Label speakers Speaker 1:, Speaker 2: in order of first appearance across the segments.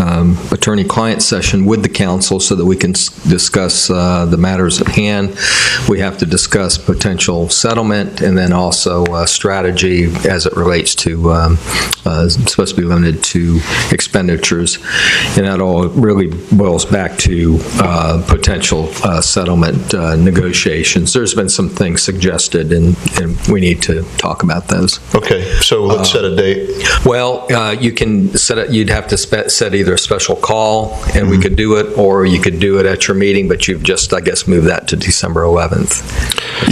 Speaker 1: um, attorney-client session with the council so that we can s- discuss uh, the matters at hand. We have to discuss potential settlement and then also uh, strategy as it relates to, um, uh, it's supposed to be limited to expenditures. And that all really boils back to uh, potential uh, settlement uh, negotiations. There's been some things suggested, and and we need to talk about those.
Speaker 2: Okay, so let's set a date.
Speaker 1: Well, uh, you can set it, you'd have to spe- set either a special call, and we could do it, or you could do it at your meeting, but you've just, I guess, moved that to December 11th.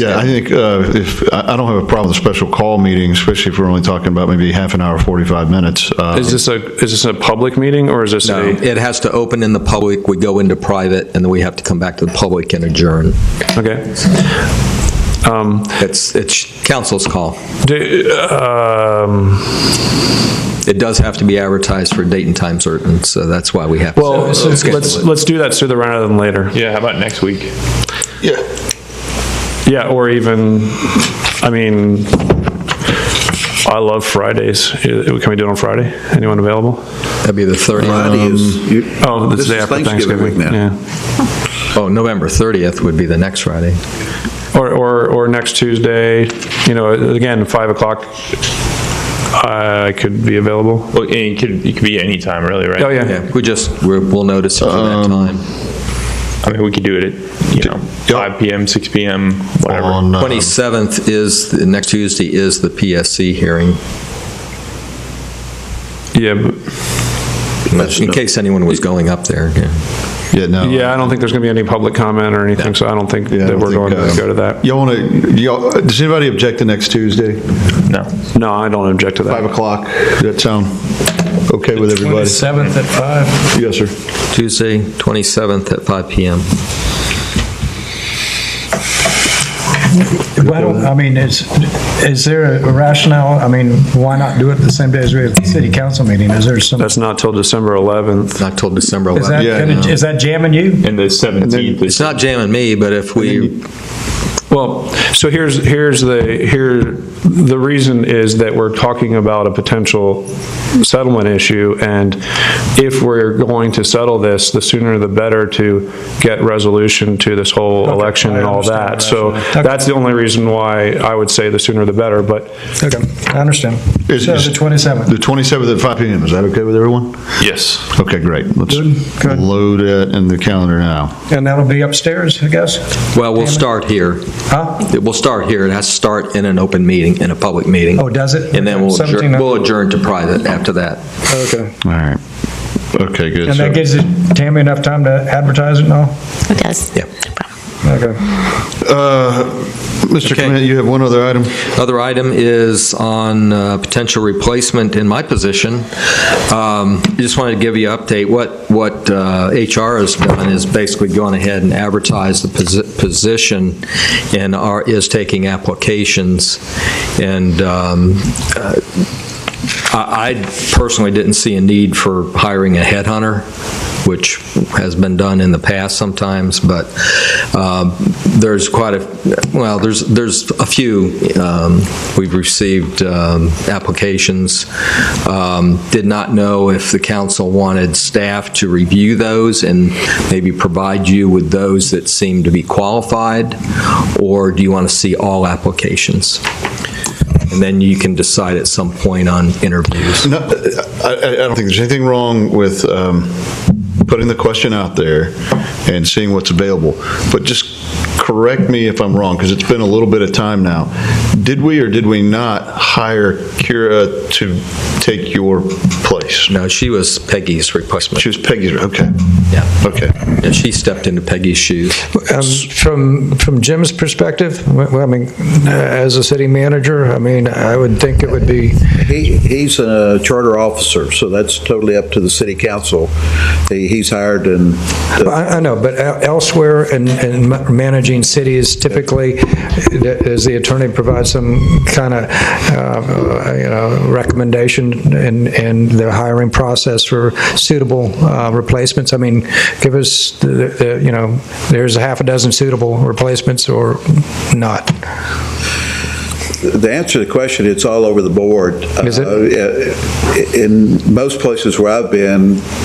Speaker 2: Yeah, I think uh, if, I I don't have a problem with special call meetings, especially if we're only talking about maybe half an hour, 45 minutes. Uh,
Speaker 3: Is this a, is this a public meeting or is this
Speaker 1: No,
Speaker 3: a?
Speaker 1: It has to open in the public, we go into private, and then we have to come back to the public and adjourn.
Speaker 3: Okay.
Speaker 1: It's, it's council's call.
Speaker 3: Do, um,
Speaker 1: It does have to be advertised for a date and time certain, so that's why we have. to-
Speaker 3: well,
Speaker 1: schedule
Speaker 3: let's,
Speaker 1: it.
Speaker 3: let's do that sooner rather than later.
Speaker 4: Yeah, how about next week?
Speaker 2: Yeah.
Speaker 3: Yeah, or even, I mean, I love Fridays. Uh, Can we do it on Friday? Anyone available?
Speaker 1: That'd be the 30th.
Speaker 5: Friday is. Um, you-
Speaker 3: Oh, the
Speaker 5: this
Speaker 3: day
Speaker 5: is
Speaker 3: after Thanksgiving.
Speaker 5: week now.
Speaker 3: Yeah.
Speaker 1: Oh, November 30th would be the next Friday.
Speaker 3: Or, or, or next Tuesday, you know, again, 5 o'clock, I could be available.
Speaker 4: Well, it could, it could be any time, really, right?
Speaker 3: Oh, yeah.
Speaker 1: Yeah, we just, we're- we'll notice it for
Speaker 3: Um,
Speaker 1: that time.
Speaker 4: I mean, we could do it at, you know, five PM, six PM, whatever.
Speaker 2: On, uh,
Speaker 1: 27th is, the next Tuesday is the PSC hearing,
Speaker 3: Yeah, but-
Speaker 1: in case anyone was going up there. yeah.
Speaker 2: yeah, no.
Speaker 3: Yeah, I don't think there's going to be any public comment or anything, so I don't think
Speaker 2: Yeah, I
Speaker 3: that
Speaker 2: don't
Speaker 3: we're
Speaker 2: think,
Speaker 3: going to
Speaker 2: uh,
Speaker 3: go to that.
Speaker 2: Y'all want to, y'all, does anybody object to next Tuesday,
Speaker 4: No.
Speaker 3: No, I don't object to
Speaker 2: 5
Speaker 3: that.
Speaker 2: o'clock? Does that sound okay with everybody?
Speaker 6: 27th at 5.
Speaker 2: Yes, sir.
Speaker 1: Tuesday, 27th at 5 PM.
Speaker 6: Well, I mean, is, is there a rationale? I mean, why not do it the same day as we have the city council meeting? Is there some, is
Speaker 3: That's not till December 11th.
Speaker 1: Not till December
Speaker 6: that,
Speaker 1: 11th.
Speaker 6: gonna- is that jamming you?
Speaker 4: And the 17th
Speaker 1: It's not jamming me, but if we,
Speaker 3: Well, so here's, here's the, here, the reason is that we're talking about a potential settlement issue, and if we're going to settle this, the sooner the better to get resolution to this whole
Speaker 6: Okay,
Speaker 3: election
Speaker 6: I
Speaker 3: and all
Speaker 6: understand
Speaker 3: that.
Speaker 6: the
Speaker 3: So
Speaker 6: rationale. Okay.
Speaker 3: that's the only reason why I would say the sooner the better, but
Speaker 6: Okay, I understand.
Speaker 2: Is-
Speaker 6: So
Speaker 2: is-
Speaker 6: the 27th.
Speaker 2: The 27th at 5 PM, is that okay with everyone?
Speaker 4: Yes.
Speaker 2: Okay, great. Let's
Speaker 6: Good, good.
Speaker 2: load it in the calendar now.
Speaker 6: And that'll be upstairs, I guess?
Speaker 1: well, we'll start here.
Speaker 6: Huh?
Speaker 1: We'll start here. It has to start in an open meeting, in a public meeting.
Speaker 6: Oh, does it?
Speaker 1: And then we'll adjourn,
Speaker 6: 17th.
Speaker 1: we'll adjourn to private after that.
Speaker 6: Okay.
Speaker 2: All right. Okay, good.
Speaker 6: And that
Speaker 2: So-
Speaker 6: gives it- Tammy enough time to advertise it and all?
Speaker 7: It does.
Speaker 1: Yeah.
Speaker 7: No problem.
Speaker 6: Okay.
Speaker 2: Uh, Mr.
Speaker 1: Okay.
Speaker 2: Clement, you have one other item?
Speaker 1: Other item is on uh, potential replacement in my position. Um, I Just wanted to give you an update. What, what uh, HR has done is basically gone ahead and advertised the posi- position and are, is taking applications. And um, uh, I I personally didn't see a need for hiring a headhunter, which has been done in the past sometimes, but um, there's quite a, well, there's, there's a few. um, We've received um, applications. Um, Did not know if the council wanted staff to review those and maybe provide you with those that seem to be qualified, or do you want to see all applications? And then you can decide at some point on interviews.
Speaker 2: No, I, I I don't think there's anything wrong with um, putting the question out there and seeing what's available. But just correct me if I'm wrong, because it's been a little bit of time now. Did we or did we not hire Kira to take your place?
Speaker 1: No, she was Peggy's replacement.
Speaker 2: She was Peggy's, okay,
Speaker 1: Yeah,
Speaker 2: okay.
Speaker 1: Yeah, she stepped into Peggy's shoes.
Speaker 8: Um, From, from Jim's perspective, well, I mean, uh, as a city manager, I mean, I would think it would be,
Speaker 5: He, he's a charter officer, so that's totally up to the city council. He- He's hired and,
Speaker 8: I I know, but el- elsewhere in, in ma- managing cities typically, does the attorney provide some kind of, uh, you know, recommendation in, in the hiring process for suitable uh, replacements? I mean, give us, the- the- you know, there's a half a dozen suitable replacements or not.
Speaker 5: the answer to the question, it's all over the board.
Speaker 8: Is it?
Speaker 5: Uh, In most places where I've been,